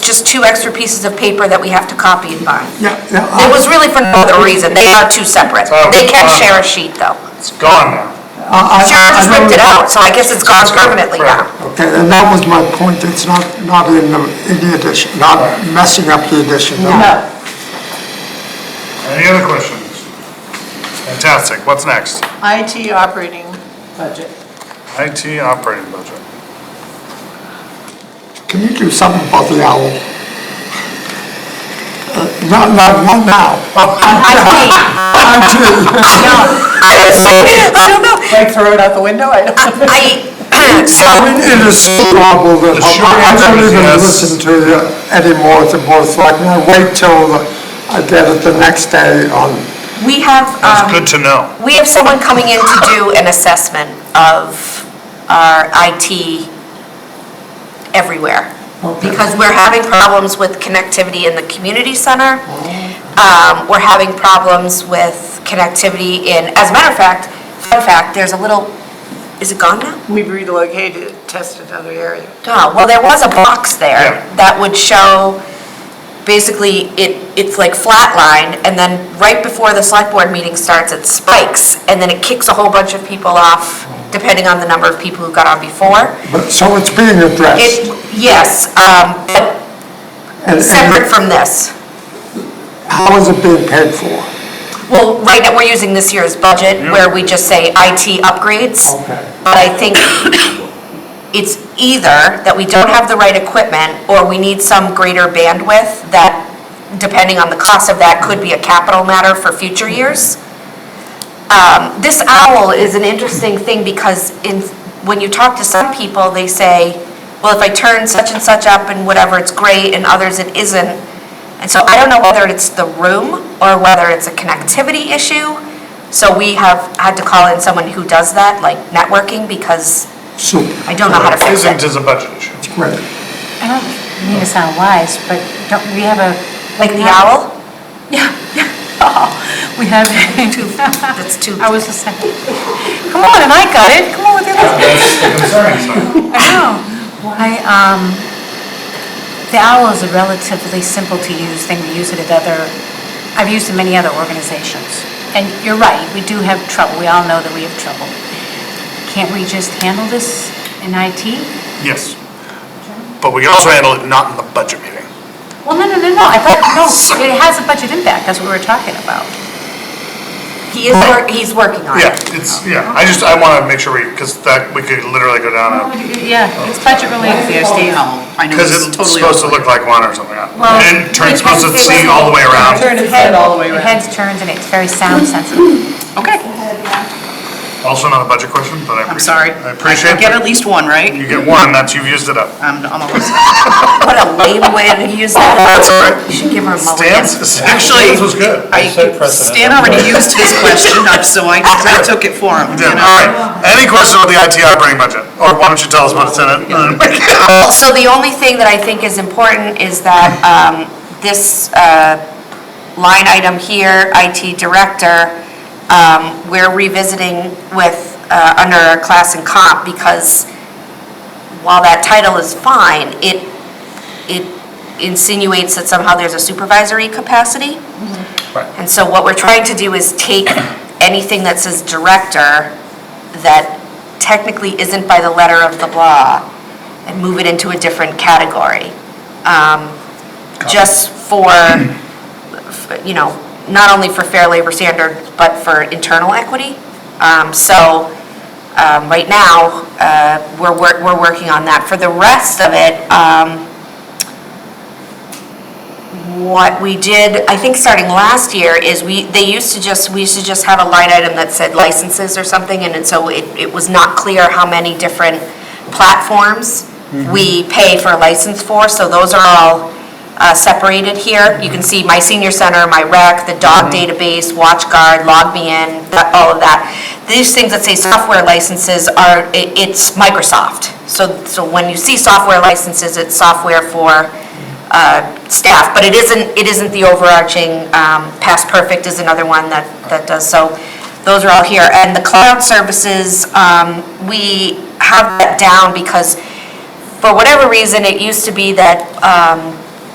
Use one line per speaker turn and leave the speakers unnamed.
just two extra pieces of paper that we have to copy and bind.
Yeah, yeah,
It
I-
was really for no other reason, they are two separate.
Oh,
They can
fine.
share a sheet, though.
It's gone now.
I- I-
Sharon just
Uh, I know-
ripped it out, so I guess it's gone permanently now.
Okay, and that was my point, it's not, not in the, in the addition, not messing up the addition.
Any other questions? Fantastic, what's next?
IT operating budget.
IT operating budget.
Can you do something about the owl? Uh, Not, not, not now. I'm kidding.
I was like, I don't know,
Like throw it out the window? I
I,
don't.
so,
I mean, it is horrible that
The short
I don't
answer is
even
yes.
listen to you anymore at the board of selectmen. I wait till the- I get it the next day on,
we have, um,
That's good to know.
We have someone coming in to do an assessment of our IT everywhere. Because we're having problems with connectivity in the community center. Um, We're having problems with connectivity in, as a matter of fact, fun fact, there's a little, is it gone now?
We've relocated, tested another area.
Oh, well, there was a box
Yeah.
there that would show, basically, it, it's like flat line, and then right before the select board meeting starts, it spikes, and then it kicks a whole bunch of people off, depending on the number of people who got on before.
but, so it's being addressed.
It, yes, um, but
And- and
separate from this.
How is it being paid for?
Well, right now, we're using this year's budget, where we just say IT upgrades.
Okay.
But I think it's either that we don't have the right equipment, or we need some greater bandwidth that, depending on the cost of that, could be a capital matter for future years. Um, This owl is an interesting thing, because in, when you talk to some people, they say, well, if I turn such and such up and whatever, it's great, and others it isn't. And so I don't know whether it's the room, or whether it's a connectivity issue. So we have had to call in someone who does that, like networking, because
Super,
I don't know how to fix it.
Isn't is a budget issue.
great.
I don't mean to sound wise, but don't, we have a.
Like the owl?
Yeah, yeah. Oh, We have.
That's too,
I was just saying, come on, and I got it, come on with it. I know. Why, um, the owl is a relatively simple to use thing. We use it at other, I've used it in many other organizations. And you're right, we do have trouble. We all know that we have trouble. Can't we just handle this in IT?
Yes. But we can also handle it not in the budget meeting.
Well, no, no, no, no, I thought, no, it has a budget impact, that's what we were talking about.
he is, wor- he's working on
Yeah,
it.
it's, yeah, I just, I want to make sure we, because that, we could literally go down a,
Yeah, it's budget related.
They stay home. I know
because it's supposed to look like one or something. And turn,
it's
supposed to see all the way around.
Turn its head all the way
It
around.
heads turns and it's very sound sensitive.
Okay,
Also not a budget question, but I appreciate.
I'm sorry.
I appreciate
I Get
that
at least one, right?
you get one, that's, you've used it up.
I'm, I'm almost.
What a lame way to use that.
Oh,
You should give her a mulligan.
Stan's, actually,
Actually,
this was good.
I, Stan already used his question, so I, I took it for him,
Yeah, all
you know?
right. Any question about the IT operating budget? Or why don't you tell us what's in it? Uh,
Well, So the only thing that I think is important is that um, this uh, line item here, IT Director, um, we're revisiting with, uh, under our class and comp, because while that title is fine, it, it insinuates that somehow there's a supervisory capacity. And so what we're trying to do is take anything that says director that technically isn't by the letter of the law and move it into a different category. Um, Just for, you know, not only for fair labor standards, but for internal equity. Um, So um, right now, uh, we're, wor- we're working on that. For the rest of it, um, what we did, I think starting last year, is we, they used to just, we used to just have a line item that said licenses or something, and it- so it, it was not clear how many different platforms we pay for a license for, so those are all uh, separated here. You can see my senior center, my rec, the dog database, WatchGuard, LogMeIn, that- all of that. These things that say software licenses are, i- it's Microsoft. So, so when you see software licenses, it's software for uh, staff, but it isn't, it isn't the overarching, um, Past Perfect is another one that, that does, so those are all here. And the cloud services, um, we have that down because for whatever reason, it used to be that um,